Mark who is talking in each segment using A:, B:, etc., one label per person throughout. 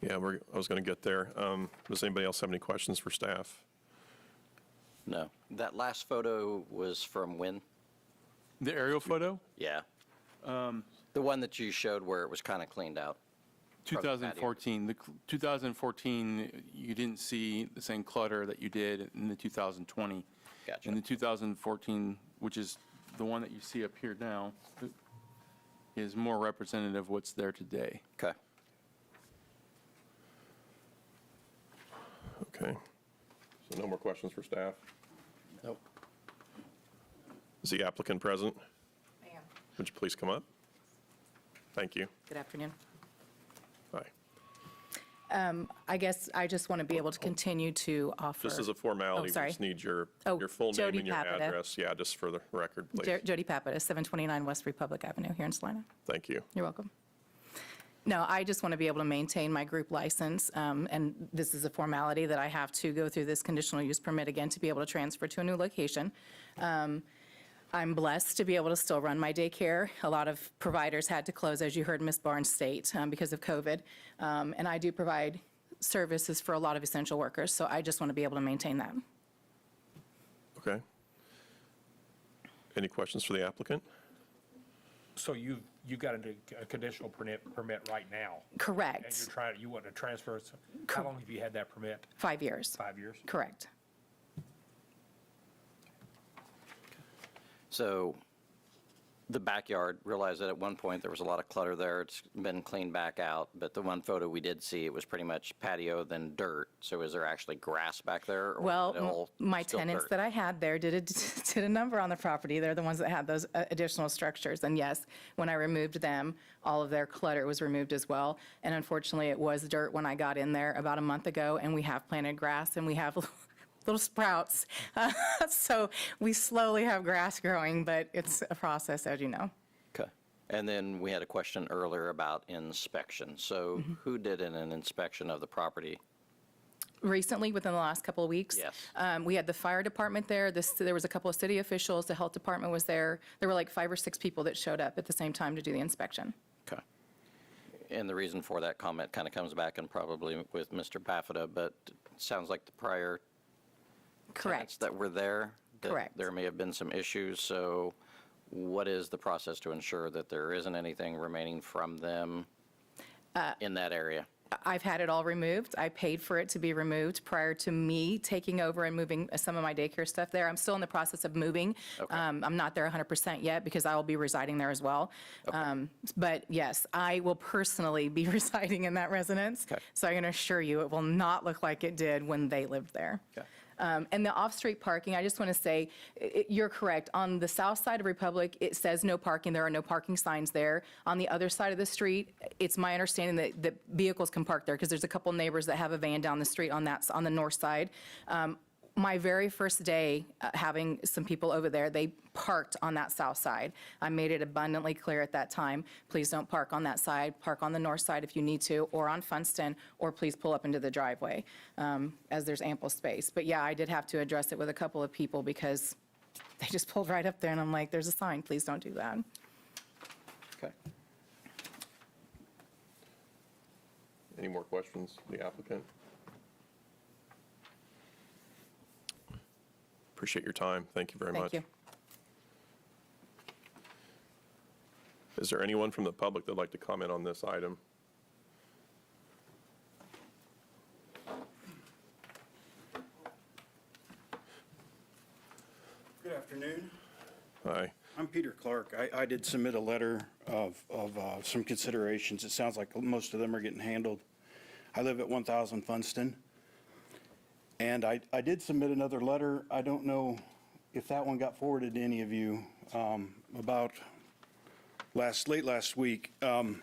A: Yeah, we're, I was going to get there. Um, Does anybody else have any questions for staff?
B: No. That last photo was from when?
C: The aerial photo,
B: Yeah. The one that you showed where it was kind of cleaned out.
C: 2014, the cl- 2014, you didn't see the same clutter that you did in the 2020.
B: Gotcha.
C: And the 2014, which is the one that you see up here now, is more representative of what's there today.
B: Okay.
A: Okay. So no more questions for staff?
B: Nope.
A: Is the applicant present?
D: I am.
A: Would you please come up? Thank you.
D: Good afternoon.
A: Hi.
D: I guess I just want to be able to continue to offer.
A: Just as a formality, we
D: sorry.
A: just need your,
D: Oh,
A: your full name
D: Jody
A: and your
D: Papata.
A: address. Yeah, just for the record,
D: Jo-
A: please.
D: Jody Pappas, 729 West Republic Avenue here in Salina.
A: Thank you.
D: You're welcome. No, I just want to be able to maintain my group license, um, and this is a formality that I have to go through this conditional use permit again to be able to transfer to a new location. Um, I'm blessed to be able to still run my daycare. A lot of providers had to close, as you heard Ms. Barnes state, um, because of COVID. Um, And I do provide services for a lot of essential workers, so I just want to be able to maintain that.
A: Okay. Any questions for the applicant?
E: So you, you got a, a conditional permit, permit right now, and
D: Correct.
E: you're trying, you want to transfer, it. how long have you had that permit?
D: Five years.
E: Five years?
D: Correct.
B: So the backyard, realized that at one point there was a lot of clutter there. It's been cleaned back out, but the one photo we did see, it was pretty much patio then dirt. So is there actually grass back there? or is it
D: Well,
B: all
D: m- my
B: still
D: tenants
B: dirt?
D: that I had there did a, did a number on the property. They're the ones that had those uh, additional structures. And yes, when I removed them, all of their clutter was removed as well. And unfortunately, it was dirt when I got in there about a month ago, and we have planted grass and we have little sprouts. So we slowly have grass growing, but it's a process, as you know.
B: Okay. And then we had a question earlier about inspection. So
D: Mm-hmm.
B: who did an an inspection of the property?
D: recently, within the last couple of weeks.
B: Yes.
D: Um, We had the fire department there, this, there was a couple of city officials, the health department was there. There were like five or six people that showed up at the same time to do the inspection.
B: Okay. And the reason for that comment kind of comes back and probably with Mr. Baffada, but it sounds like the prior tenants
D: Correct.
B: that were there, that
D: Correct.
B: there may have been some issues, so what is the process to ensure that there isn't anything remaining from them
D: Uh,
B: in that area?
D: I've had it all removed. I paid for it to be removed prior to me taking over and moving uh, some of my daycare stuff there. I'm still in the process of moving.
B: Okay.
D: Um, I'm not there 100% yet because I will be residing there as well. Um, But yes, I will personally be residing in that residence.
B: Okay.
D: So I can assure you, it will not look like it did when they lived there.
B: Okay.
D: Um, And the off-street parking, I just want to say, i- i- you're correct. On the south side of Republic, it says no parking. There are no parking signs there. On the other side of the street, it's my understanding that, that vehicles can park there because there's a couple neighbors that have a van down the street on that, s- on the north side. Um, My very first day uh, having some people over there, they parked on that south side. I made it abundantly clear at that time, please don't park on that side. Park on the north side if you need to, or on Funston, or please pull up into the driveway, um, as there's ample space. But yeah, I did have to address it with a couple of people because they just pulled right up there, and I'm like, there's a sign, please don't do that.
B: Okay.
A: Any more questions for the applicant? Appreciate your time. Thank you very much.
D: Thank you.
A: Is there anyone from the public that'd like to comment on this item?
F: Good afternoon.
A: Aye.
F: I'm Peter Clark. I, I did submit a letter of, of uh, some considerations. It sounds like most of them are getting handled. I live at 1,000 Funston. And I, I did submit another letter. I don't know if that one got forwarded to any of you um, about last, late last week. Um,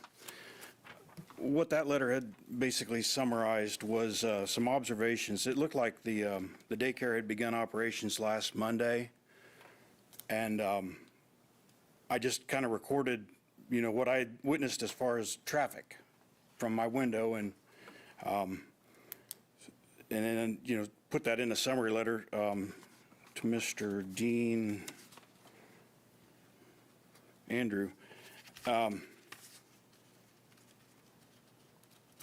F: What that letter had basically summarized was uh, some observations. It looked like the, um, the daycare had begun operations last Monday. And um, I just kind of recorded, you know, what I had witnessed as far as traffic from my window and, um, and then, you know, put that in a summary letter um, to Mr. Dean Andrew. Um,